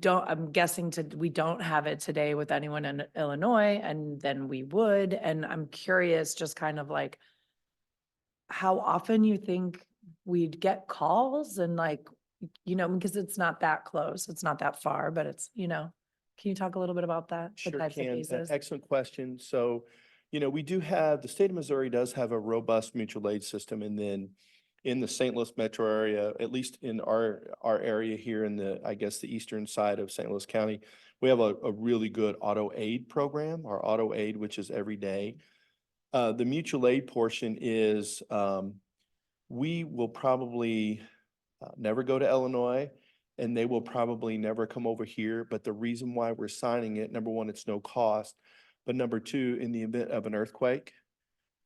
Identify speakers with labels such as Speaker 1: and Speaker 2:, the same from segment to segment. Speaker 1: don't, I'm guessing to, we don't have it today with anyone in Illinois and then we would. And I'm curious, just kind of like how often you think we'd get calls and like, you know, because it's not that close, it's not that far, but it's, you know, can you talk a little bit about that? the
Speaker 2: Sure
Speaker 1: types of
Speaker 2: can. E-
Speaker 1: cases?
Speaker 2: Excellent question. So, you know, we do have, the state of Missouri does have a robust mutual aid system. And then in the St. Louis metro area, at least in our, our area here in the, I guess, the eastern side of St. Louis County, we have a, a really good auto aid program, our auto aid, which is every day. Uh, the mutual aid portion is, um, we will probably uh, never go to Illinois and they will probably never come over here. But the reason why we're signing it, number one, it's no cost. But number two, in the event of an earthquake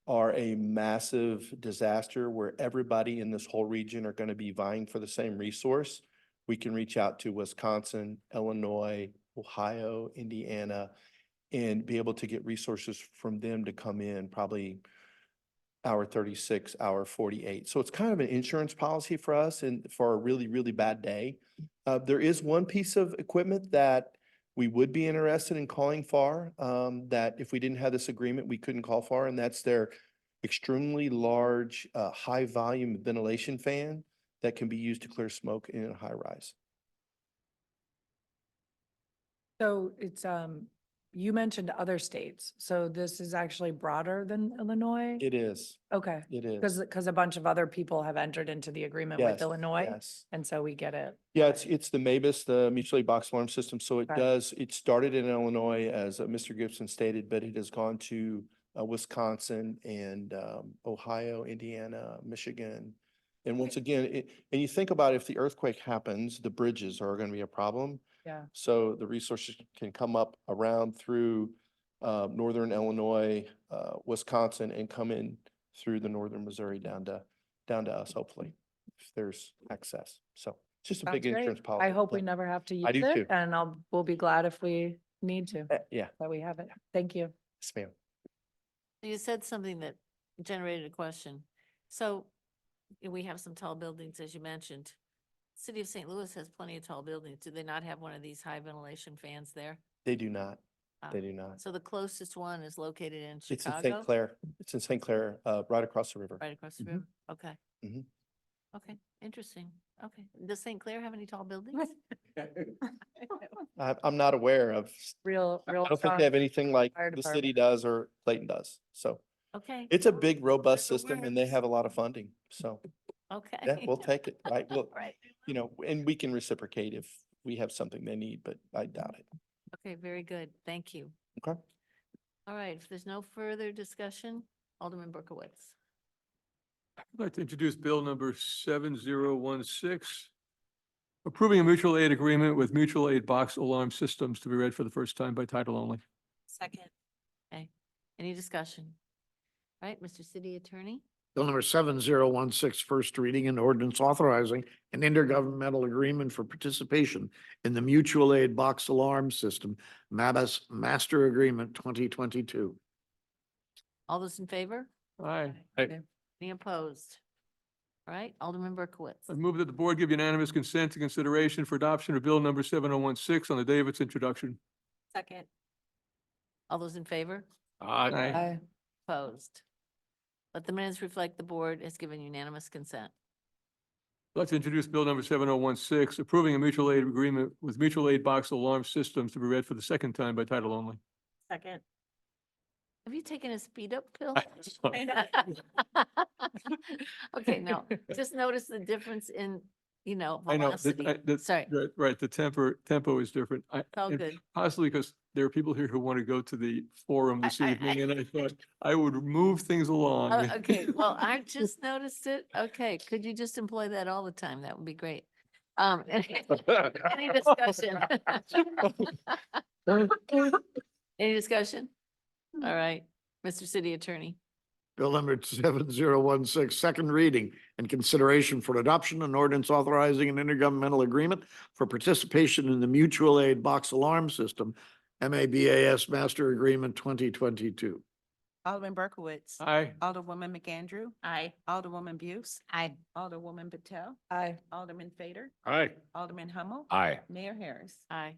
Speaker 2: or a massive disaster where everybody in this whole region are going to be vying for the same resource, we can reach out to Wisconsin, Illinois, Ohio, Indiana, and be able to get resources from them to come in probably hour thirty-six, hour forty-eight. So it's kind of an insurance policy for us and for a really, really bad day. Uh, there is one piece of equipment that we would be interested in calling for, um, that if we didn't have this agreement, we couldn't call for, and that's their extremely large, uh, high-volume ventilation fan that can be used to clear smoke in a high-rise.
Speaker 1: So it's, um, you mentioned other states, so this is actually broader than Illinois?
Speaker 2: It is,
Speaker 1: Okay,
Speaker 2: it is.
Speaker 1: because, because a bunch of other people have entered into the agreement with
Speaker 2: Yes,
Speaker 1: Illinois,
Speaker 2: Yes.
Speaker 1: and so we get it.
Speaker 2: Yeah, it's, it's the MABUS, the mutual aid box alarm system. So it
Speaker 1: Okay.
Speaker 2: does, it started in Illinois, as uh, Mr. Gibson stated, but it has gone to uh, Wisconsin and um, Ohio, Indiana, Michigan. And once again, it, and you think about if the earthquake happens, the bridges are going to be a problem.
Speaker 1: Yeah.
Speaker 2: So the resources can come up around through uh, northern Illinois, uh, Wisconsin, and come in through the northern Missouri down to, down to us, hopefully, if there's access. So it's just a
Speaker 1: Sounds
Speaker 2: big
Speaker 1: great.
Speaker 2: insurance policy.
Speaker 1: I hope we
Speaker 2: but-
Speaker 1: never have to use
Speaker 2: do too.
Speaker 1: it, and I'll, we'll be glad if we need to,
Speaker 2: Eh, Yeah,
Speaker 1: that we have it. Thank you.
Speaker 2: yes, ma'am.
Speaker 3: You said something that generated a question. So y- we have some tall buildings, as you mentioned. City of St. Louis has plenty of tall buildings. Do they not have one of these high ventilation fans there?
Speaker 2: They do not, they
Speaker 3: Um,
Speaker 2: do not.
Speaker 3: So the closest one is located in
Speaker 2: It's in St.
Speaker 3: Chicago,
Speaker 2: Clair. Mm-hmm. It's in St. Clair, uh, right across the river.
Speaker 3: right across the
Speaker 1: Mhm.
Speaker 3: river? Okay.
Speaker 2: Mhm.
Speaker 3: Okay, interesting. Okay. Does St. Clair have any tall buildings?
Speaker 2: I, I'm not aware of,
Speaker 1: Real, real.
Speaker 2: I don't think
Speaker 1: talk.
Speaker 2: they have anything like
Speaker 1: Oh, Fire
Speaker 2: the city does or Clayton does. So
Speaker 3: Okay,
Speaker 2: it's a big, robust
Speaker 3: There's a
Speaker 2: system
Speaker 3: way.
Speaker 2: and they have a lot of funding. So,
Speaker 3: okay.
Speaker 2: yeah, we'll take it, right? We'll,
Speaker 3: Right.
Speaker 2: you know, and we can reciprocate if we have something they need, but I doubt it.
Speaker 3: Okay, very good. Thank you.
Speaker 2: Okay.
Speaker 3: All right, if there's no further discussion, Alderman Berkowitz.
Speaker 4: I'd like to introduce Bill number seven zero one six. Approving a mutual aid agreement with mutual aid box alarm systems to be read for the first time by title only.
Speaker 3: Second. Okay, any discussion? All right, Mr. City Attorney,
Speaker 5: Bill number seven zero one six, first reading and ordinance authorizing an intergovernmental agreement for participation in the mutual aid box alarm system, MABUS Master Agreement twenty twenty-two.
Speaker 3: all those in favor?
Speaker 4: Aye.
Speaker 3: Any opposed? All right, Alderman
Speaker 4: I
Speaker 3: Berkowitz.
Speaker 4: move that the board give unanimous consent to consideration for adoption of Bill number seven oh one six on the day of its introduction.
Speaker 3: Second. All those in favor?
Speaker 4: Aye.
Speaker 1: Aye.
Speaker 3: Opposed? Let the minutes reflect the board has given unanimous consent.
Speaker 4: I'd like to introduce Bill number seven oh one six, approving a mutual aid agreement with mutual aid box alarm systems to be read for the second time by title only.
Speaker 3: Second. Have you taken a speed up pill?
Speaker 4: I'm sorry.
Speaker 3: Okay, no, just notice the difference in, you know,
Speaker 4: I know, that-
Speaker 3: velocity.
Speaker 4: I- that-
Speaker 3: Sorry,
Speaker 4: Right, right, the temper, tempo is different. I,
Speaker 3: it's all
Speaker 4: and
Speaker 3: good.
Speaker 4: Possibly because there are people here who want to go to the forum
Speaker 3: I-
Speaker 4: this
Speaker 3: I-
Speaker 4: evening, and I thought I would move things along.
Speaker 3: Oh, Okay, well, I just noticed it. Okay, could you just employ that all the time? That would be great. Um, any any discussion? Any discussion? All right, Mr. City Attorney,
Speaker 5: Bill number seven zero one six, second reading and consideration for adoption and ordinance authorizing an intergovernmental agreement for participation in the mutual aid box alarm system, MABAS Master Agreement twenty twenty-two.
Speaker 6: Alderman Berkowitz.
Speaker 4: Aye.
Speaker 6: Alderwoman McAndrew.
Speaker 3: Aye.
Speaker 6: Alderwoman Buse.
Speaker 3: Aye.
Speaker 6: Alderwoman Patel.
Speaker 1: Aye.
Speaker 6: Alderman Fader.
Speaker 7: Aye.
Speaker 6: Alderman Hummel.
Speaker 7: Aye.
Speaker 6: Mayor Harris.
Speaker 3: Aye.